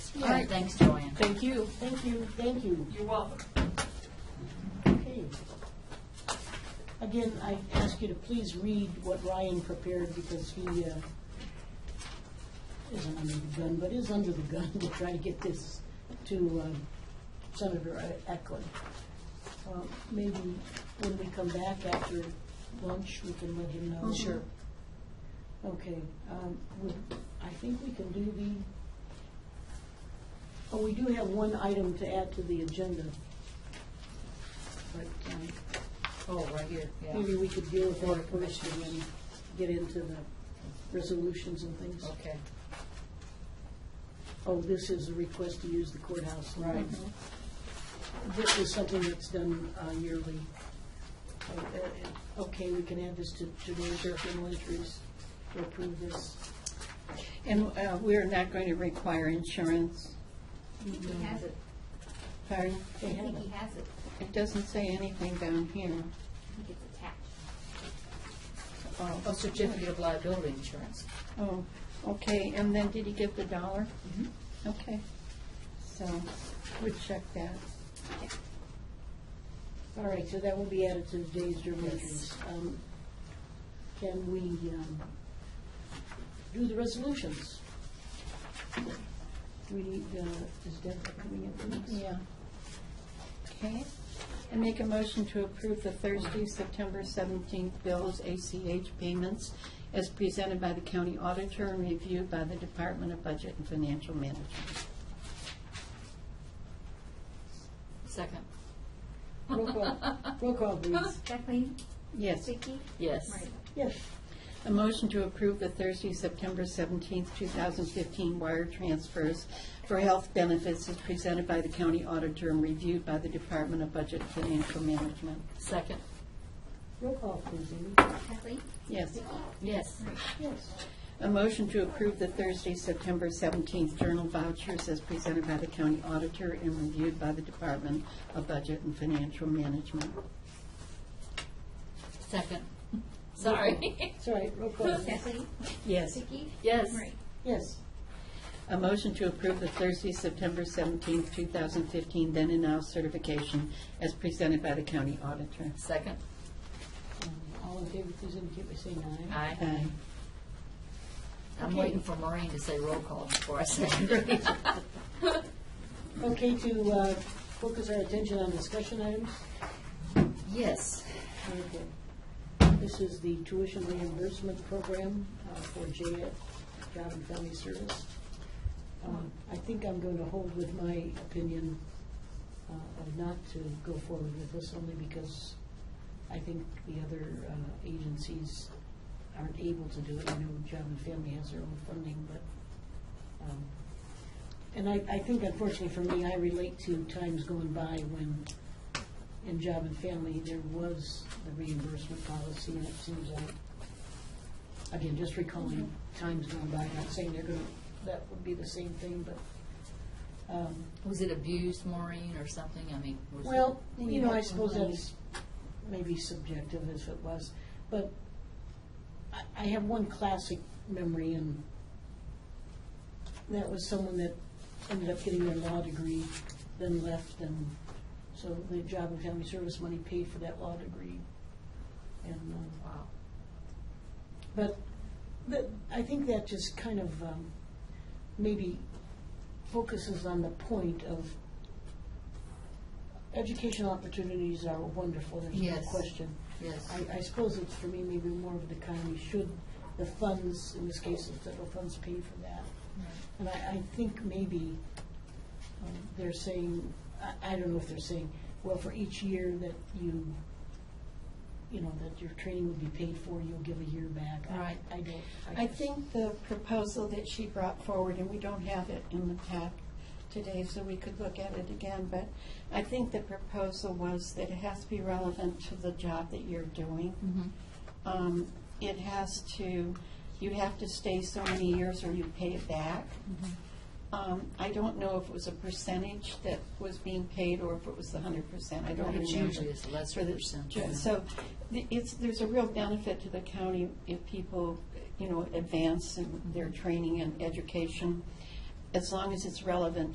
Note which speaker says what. Speaker 1: right, thanks, Joanne.
Speaker 2: Thank you.
Speaker 3: Thank you, thank you.
Speaker 2: You're welcome.
Speaker 3: Okay. Again, I ask you to please read what Ryan prepared because he uh, isn't under the gun, but is under the gun to try to get this to um, Senator E-, Eklund. Uh, Maybe when we come back after lunch, we can let him know.
Speaker 2: Sure.
Speaker 3: Okay, um, would, I think we can do the, oh, we do have one item to add to the agenda. But, um,
Speaker 1: Oh, right here, yeah,
Speaker 3: maybe we could deal with that first and then get into the resolutions and things.
Speaker 1: okay.
Speaker 3: Oh, this is a request to use the courthouse. Mhm.
Speaker 1: Right.
Speaker 3: This is something that's done uh, yearly. Uh, uh, Okay, we can add this to today's journal entries, to approve this.
Speaker 4: And uh, we're not going to require insurance,
Speaker 1: He has it,
Speaker 4: pardon?
Speaker 1: I
Speaker 3: They have
Speaker 1: think
Speaker 3: it.
Speaker 1: he has it,
Speaker 4: It doesn't say anything down here.
Speaker 1: I think it's attached.
Speaker 4: Oh,
Speaker 1: A certificate of liability insurance.
Speaker 4: Oh, okay, and then did he give the dollar?
Speaker 1: Mhm.
Speaker 4: Okay, so we check that.
Speaker 3: All right, so that will be added to today's journal entries. Um, Can we um, do the resolutions? Do we need, uh, is Deb coming in? for this?
Speaker 4: Yeah. Okay, and make a motion to approve the Thursday, September 17th bills, ACH payments, as presented by the county auditor and reviewed by the Department of Budget and Financial Management.
Speaker 1: Second.
Speaker 3: Roll call, roll call, please.
Speaker 5: Kathleen?
Speaker 4: Yes.
Speaker 5: Vicki?
Speaker 1: Yes.
Speaker 5: Marty?
Speaker 3: Yes,
Speaker 4: A motion to approve the Thursday, September 17th, 2015 wire transfers for health benefits is presented by the county auditor and reviewed by the Department of Budget and Financial Management.
Speaker 1: Second.
Speaker 3: roll call, please, Amy.
Speaker 5: Kathleen?
Speaker 4: Yes.
Speaker 1: Yes.
Speaker 3: Yes,
Speaker 4: A motion to approve the Thursday, September 17th journal vouchers as presented by the county auditor and reviewed by the Department of Budget and Financial Management.
Speaker 1: Second. Sorry.
Speaker 3: it's all right, roll call.
Speaker 5: Kathleen?
Speaker 4: Yes.
Speaker 5: Vicki?
Speaker 1: Yes.
Speaker 5: Marty?
Speaker 3: Yes,
Speaker 4: A motion to approve the Thursday, September 17th, 2015 then and now certification as presented by the county auditor.
Speaker 1: Second.
Speaker 3: Um, all in favor, please indicate by saying aye.
Speaker 1: Aye.
Speaker 4: Aye.
Speaker 1: I'm
Speaker 3: Okay.
Speaker 1: waiting for Maureen to say roll call before I second it.
Speaker 3: Okay, to uh, focus our attention on discussion items.
Speaker 1: Yes.
Speaker 3: Okay. This is the tuition reimbursement program uh, for JF, Job and Family Service. Um, I think I'm going to hold with my opinion uh, of not to go forward with this, only because I think the other uh, agencies aren't able to do it. I know Job and Family has their own funding, but, um, and I, I think unfortunately for me, I relate to times going by when in Job and Family, there was the reimbursement policy, and it seems like, again, just recalling times gone by, not saying they're gonna, that would be the same thing, but, um,
Speaker 1: Was it abused, Maureen, or something? I mean, was it?
Speaker 3: well, you know, I suppose that's maybe subjective as it was, but I, I have one classic memory, and that was someone that ended up getting their law degree, then left, and so the job and family service money paid for that law degree. And, um,
Speaker 1: Wow.
Speaker 3: but the, I think that just kind of um, maybe focuses on the point of educational opportunities are wonderful, there's no
Speaker 1: Yes.
Speaker 3: question.
Speaker 1: Yes.
Speaker 3: I, I suppose it's for me maybe more of the county should the funds, in this case, the federal funds pay for that. And I, I think maybe um, they're saying, I, I don't know if they're saying, well, for each year that you, you know, that your training would be paid for, you'll give a year back. I-
Speaker 1: Right.
Speaker 3: I don't.
Speaker 4: I think the proposal that she brought forward, and we don't have it in the pack today, so we could look at it again, but I think the proposal was that it has to be relevant to the job that you're doing. Um, It has to, you have to stay so many years or you pay it back. Um, I don't know if it was a percentage that was being paid or if it was the hundred percent. I don't remember.
Speaker 1: It's usually it's less
Speaker 4: For the-
Speaker 1: percent,
Speaker 4: ju-
Speaker 1: yeah.
Speaker 4: So th- it's, there's a real benefit to the county if people, you know, advance in their training and education, as long as it's relevant